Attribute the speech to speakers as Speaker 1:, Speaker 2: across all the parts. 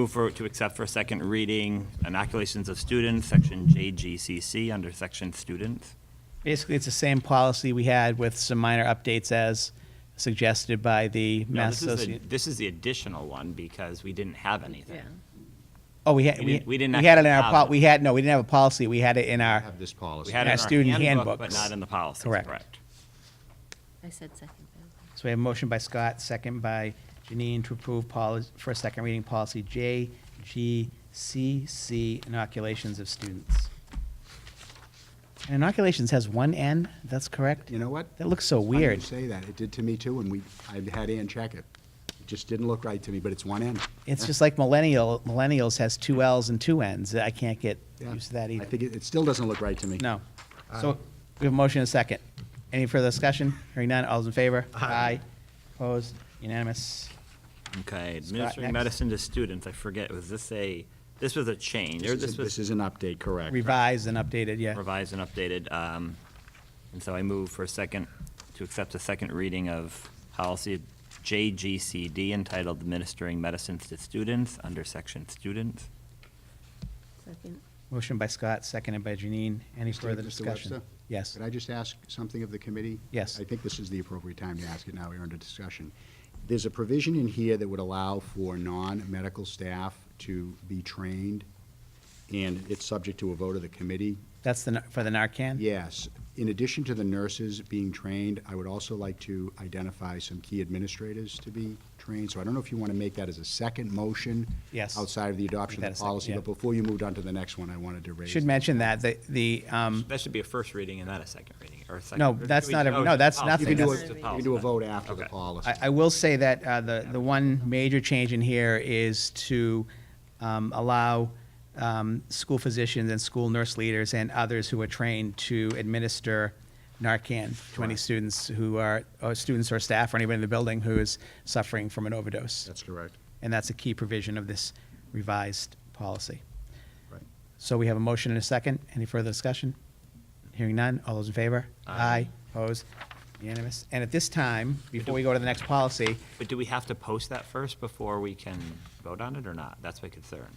Speaker 1: Move for, to accept for second reading inoculations of students, section JGCC, under section students.
Speaker 2: Basically, it's the same policy we had with some minor updates as suggested by the
Speaker 1: No, this
Speaker 2: Mass
Speaker 1: is the-
Speaker 2: Association.
Speaker 1: This is the additional one because we didn't have anything.
Speaker 2: Oh, we had,
Speaker 1: we
Speaker 2: we
Speaker 1: didn't- we didn't
Speaker 2: we had it in
Speaker 1: actually
Speaker 2: our, pol-
Speaker 1: have it.
Speaker 2: we had, no, we didn't have a policy, we had it in our,
Speaker 3: have this policy.
Speaker 1: We had it
Speaker 2: Yeah,
Speaker 1: in
Speaker 2: student
Speaker 1: our handbook, but
Speaker 2: handbooks.
Speaker 1: not in the policies,
Speaker 2: Correct.
Speaker 1: correct?
Speaker 4: I said second. though.
Speaker 2: so we have a motion by Scott, second by Janine to approve policy, for a second reading policy, JGCC, inoculations of students. And inoculations has one N, that's correct?
Speaker 3: You know what?
Speaker 2: That looks so
Speaker 3: Funny
Speaker 2: weird.
Speaker 3: you say that. It did to me too, and we, I had Ann check it. It just didn't look right to me, but it's one N.
Speaker 2: It's just like millennial, millennials has two Ls and two Ns, I can't get
Speaker 3: Yeah.
Speaker 2: used to that either.
Speaker 3: I think it, it still doesn't look right to me.
Speaker 2: No. So we have a motion and a second. Any further discussion? Hearing none, all's in favor? Aye. Opposed? Unanimous.
Speaker 1: Okay, administering
Speaker 2: next.
Speaker 1: medicine to students, I forget, was this a, this was a change, or
Speaker 3: This
Speaker 1: this
Speaker 3: is,
Speaker 1: was
Speaker 3: this is an update, correct?
Speaker 2: Revised and updated, yeah.
Speaker 1: revised and updated? um, And so I move for a second, to accept a second reading of policy JGCD entitled administering medicines to students, under section students.
Speaker 4: Second.
Speaker 2: Motion by Scott, seconded by Janine. Any
Speaker 3: Mr.
Speaker 2: further
Speaker 3: Mr.
Speaker 2: discussion?
Speaker 3: Webster?
Speaker 2: Yes.
Speaker 3: Could I just ask something of the committee?
Speaker 2: Yes.
Speaker 3: I think this is the appropriate time to ask it now, we're under discussion. There's a provision in here that would allow for non-medical staff to be trained, and it's subject to a vote of the committee.
Speaker 2: That's the, for the Narcan?
Speaker 3: Yes, in addition to the nurses being trained, I would also like to identify some key administrators to be trained. So I don't know if you want to make that as a second motion.
Speaker 2: Yes.
Speaker 3: Outside of the adoption
Speaker 2: Make that
Speaker 3: of
Speaker 2: a
Speaker 3: the
Speaker 2: second,
Speaker 3: policy,
Speaker 2: yeah.
Speaker 3: but before you moved on to the next one, I wanted to raise.
Speaker 2: Should mention that, the, the, um,
Speaker 1: That should be a first reading and not a second reading, or a second.
Speaker 2: No,
Speaker 1: or
Speaker 2: that's
Speaker 1: should we-
Speaker 2: not a-
Speaker 1: oh,
Speaker 2: no,
Speaker 1: it's
Speaker 2: that's
Speaker 1: a
Speaker 2: nothing.
Speaker 3: You can do
Speaker 1: policy.
Speaker 3: a,
Speaker 2: That's-
Speaker 3: you can do a vote after the
Speaker 1: Okay.
Speaker 3: policy.
Speaker 2: I, I will say that uh, the, the one major change in here is to um, allow um, school physicians and school nurse leaders and others who are trained to administer Narcan to any
Speaker 3: Correct.
Speaker 2: students who are, or students or staff or anybody in the building who is suffering from an overdose.
Speaker 3: That's correct.
Speaker 2: And that's a key provision of this revised policy.
Speaker 3: Right.
Speaker 2: So we have a motion and a second. Any further discussion? Hearing none. All those in favor? Aye. Opposed? Unanimous. And at this time, before we go to the next policy,
Speaker 1: But do we have to post that first before we can vote on it or not? That's my concern.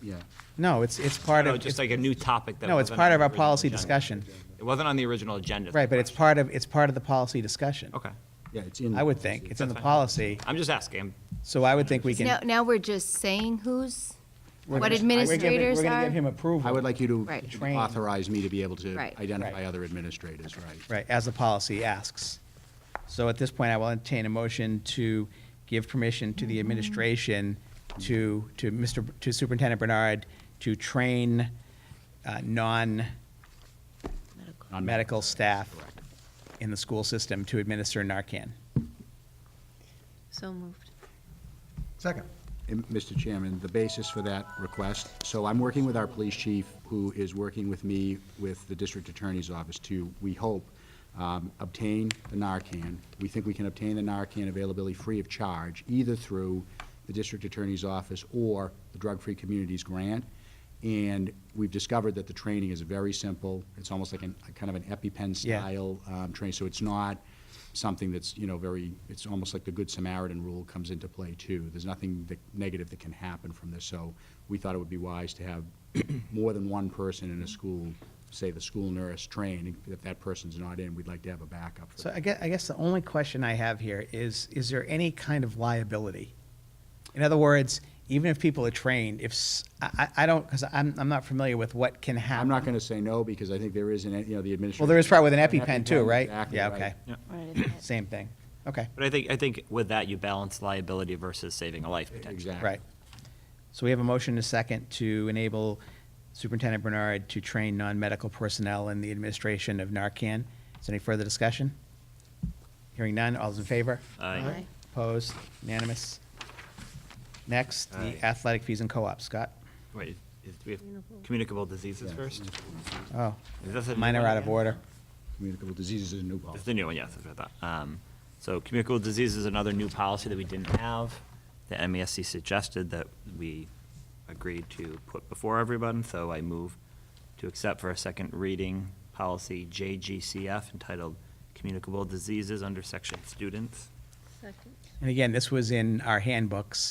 Speaker 3: Yeah.
Speaker 2: no, it's, it's part
Speaker 1: No,
Speaker 2: of,
Speaker 1: just like a new topic that
Speaker 2: no, it's
Speaker 1: wasn't
Speaker 2: part
Speaker 1: on
Speaker 2: of
Speaker 1: the
Speaker 2: our
Speaker 1: original
Speaker 2: policy
Speaker 1: agenda.
Speaker 2: discussion.
Speaker 1: It wasn't on the original agenda. is my
Speaker 2: Right, but it's
Speaker 1: question.
Speaker 2: part of, it's part of the policy discussion.
Speaker 1: Okay.
Speaker 3: Yeah, it's in.
Speaker 2: I would think. It's in the
Speaker 1: That's fine.
Speaker 2: policy,
Speaker 1: I'm just asking.
Speaker 2: so I would think we can.
Speaker 4: Now, now we're just saying who's,
Speaker 2: we're gonna-
Speaker 4: what
Speaker 2: we're giving-
Speaker 4: administrators
Speaker 2: We're going to
Speaker 4: are?
Speaker 2: give him approval.
Speaker 3: I would like you
Speaker 4: Right.
Speaker 3: to
Speaker 2: Train.
Speaker 3: authorize me to be able to
Speaker 4: Right.
Speaker 3: identify
Speaker 2: Right.
Speaker 3: other administrators, right?
Speaker 2: Right, as the policy asks. So at this point, I will entertain a motion to give permission to the administration to, to Mr., B- to Superintendent Bernard to train uh, non-medical
Speaker 4: Medical.
Speaker 2: staff
Speaker 3: Correct.
Speaker 2: in the school system to administer Narcan.
Speaker 4: So moved.
Speaker 5: Second.
Speaker 3: And, Mr. Chairman, the basis for that request, so I'm working with our police chief, who is working with me with the district attorney's office to, we hope, um, obtain the Narcan. We think we can obtain the Narcan availability free of charge, either through the district attorney's office or the Drug Free Communities Grant. And we've discovered that the training is very simple. It's almost like an, kind of an EpiPen
Speaker 2: Yeah.
Speaker 3: style um, training, so it's not something that's, you know, very, it's almost like the Good Samaritan rule comes into play too. There's nothing that, negative that can happen from this, so we thought it would be wise to have more than one person in a school, say the school nurse, trained. If that person's not in, we'd like to have a backup for
Speaker 2: So I
Speaker 3: that.
Speaker 2: guess, I guess the only question I have here is, is there any kind of liability? In other words, even if people are trained, if, s- I, I- I don't, because I'm, I'm not familiar with what can happen.
Speaker 3: I'm not gonna say no, because I think there is an, you know, the administration.
Speaker 2: Well, there is probably with an
Speaker 3: An
Speaker 2: EpiPen too, right?
Speaker 3: exactly
Speaker 2: Yeah,
Speaker 3: right.
Speaker 2: okay. Same thing. Okay,
Speaker 1: But I think, I think with that, you balance liability versus saving a life potentially.
Speaker 3: Exactly.
Speaker 2: right. So we have a motion and a second to enable Superintendent Bernard to train non-medical personnel in the administration of Narcan. Is there any further discussion? Hearing none, all's in favor?
Speaker 1: Aye.
Speaker 4: Aye.
Speaker 2: Opposed? Unanimous? Next,
Speaker 1: Aye.
Speaker 2: the athletic fees and co-op. Scott?
Speaker 1: Wait, is, do we have communicable diseases first?
Speaker 2: Oh,
Speaker 1: Is this a new
Speaker 2: mine are
Speaker 1: one
Speaker 2: out of
Speaker 1: again?
Speaker 2: order.
Speaker 3: Communicable diseases is a new
Speaker 1: It's
Speaker 3: policy.
Speaker 1: the new one, yes, that's what I thought. Um, So communicable disease is another new policy that we didn't have. The MASC suggested that we agreed to put before everyone, so I move to accept for a second reading policy JGCF entitled Communicable Diseases under section Students.
Speaker 4: Second.
Speaker 2: And again, this was in our handbooks.